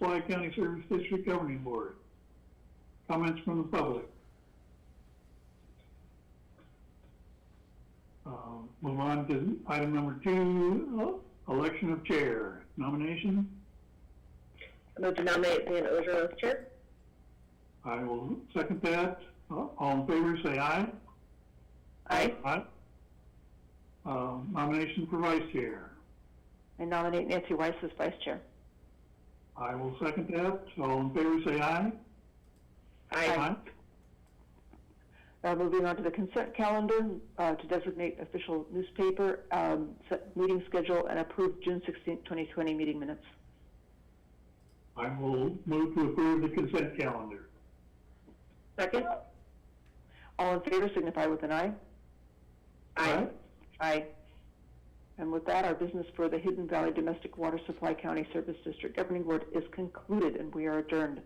Lehigh County Service District Governing Board. Comments from the public. Um, Move on to item number two, election of chair. Nomination, I move to nominate Dan Ozer as chair. I will second that. Uh, All in favor, say aye. Aye. Aye. Uh, Nomination for vice chair. I nominate Nancy Weiss as vice chair. I will second that. All in favor, say aye. Aye. Uh, moving on to the consent calendar, uh, to designate official newspaper, um, set meeting schedule, and approve June 16, 2020 meeting minutes. I will move to approve the consent calendar. Second? All in favor signify with an aye. Aye. Aye. And with that, our business for the Hidden Valley Domestic Water Supply County Service District Governing Board is concluded, and we are adjourned.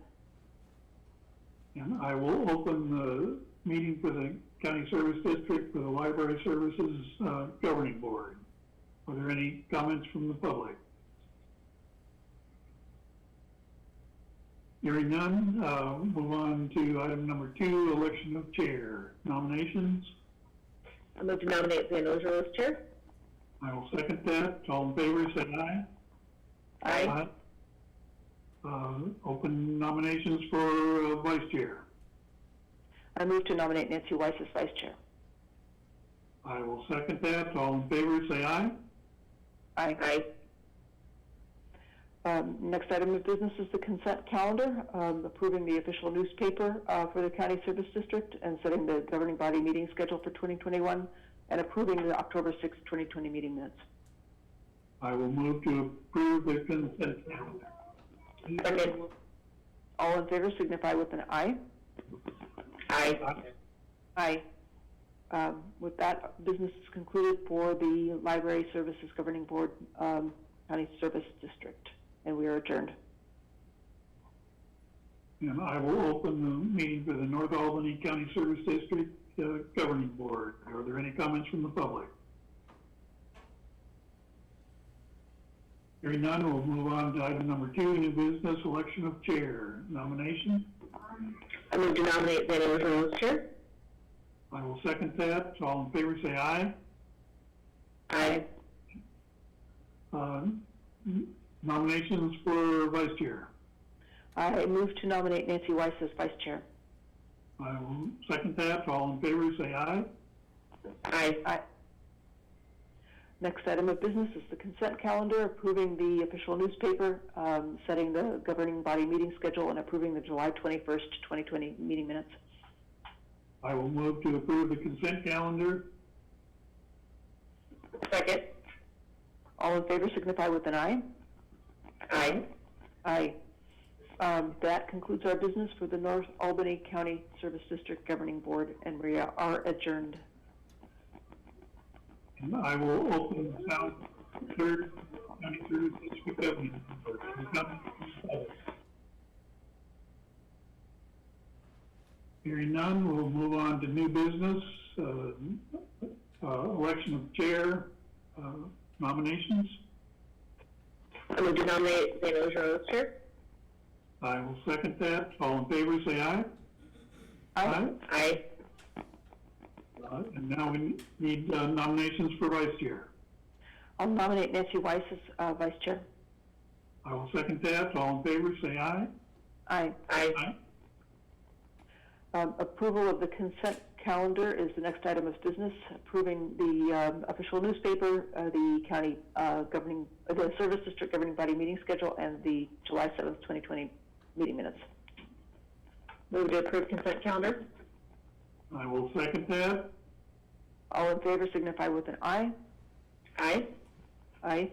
And I will open the meeting for the county service district for the library services uh, governing board. Are there any comments from the public? Hearing none, uh, move on to item number two, election of chair. Nominations, I move to nominate Dan Ozer as chair. I will second that. All in favor, say aye. Aye. Uh, Open nominations for uh, vice chair. I move to nominate Nancy Weiss as vice chair. I will second that. All in favor, say aye. Aye. Aye. Um, next item of business is the consent calendar, um, approving the official newspaper uh, for the county service district and setting the governing body meeting schedule for 2021 and approving the October 6, 2020 meeting minutes. I will move to approve the consent calendar. Second? All in favor signify with an aye. Aye. Aye. Um, with that, business is concluded for the library services governing board um, county service district, and we are adjourned. And I will open the meeting for the North Albany County Service District uh, Governing Board. Are there any comments from the public? Hearing none, we'll move on to item number two, new business, election of chair nomination. I move to nominate Dan Ozer as chair. I will second that. All in favor, say aye. Aye. Uh, Nominations for vice chair. I move to nominate Nancy Weiss as vice chair. I will second that. All in favor, say aye. Aye. Aye. Next item of business is the consent calendar, approving the official newspaper, um, setting the governing body meeting schedule, and approving the July 21st, 2020 meeting minutes. I will move to approve the consent calendar. Second? All in favor signify with an aye. Aye. Aye. Um, That concludes our business for the North Albany County Service District Governing Board, and we are adjourned. And I will open the South Third County Service District Government Board. Hearing none, we'll move on to new business, uh, uh, election of chair, uh, nominations. I move to nominate Dan Ozer as chair. I will second that. All in favor, say aye. Aye. Uh, And now we need uh, nominations for vice chair. I'll nominate Nancy Weiss as uh, vice chair. I will second that. All in favor, say aye. Aye. Aye. Aye. Um, Approval of the consent calendar is the next item of business, approving the um, official newspaper, uh, the county uh, governing, uh, the service district governing body meeting schedule, and the July 7th, 2020 meeting minutes. Move to approve consent calendar. I will second that. All in favor signify with an aye. Aye. Aye.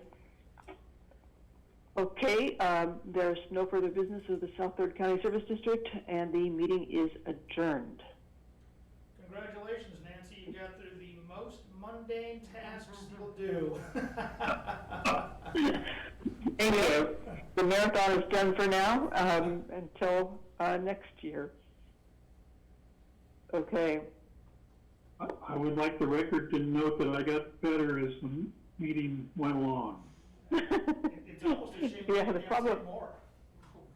Okay, um, there's no further business of the South Third County Service District, and the meeting is adjourned. Congratulations, Nancy. You got through the most mundane tasks you'll do. Thank you. The marathon is done for now, um, until, uh, next year. Okay, I I would like the record to note that I got better as the meeting went along. It- It's almost a shame Yeah, we the can't say problem- more.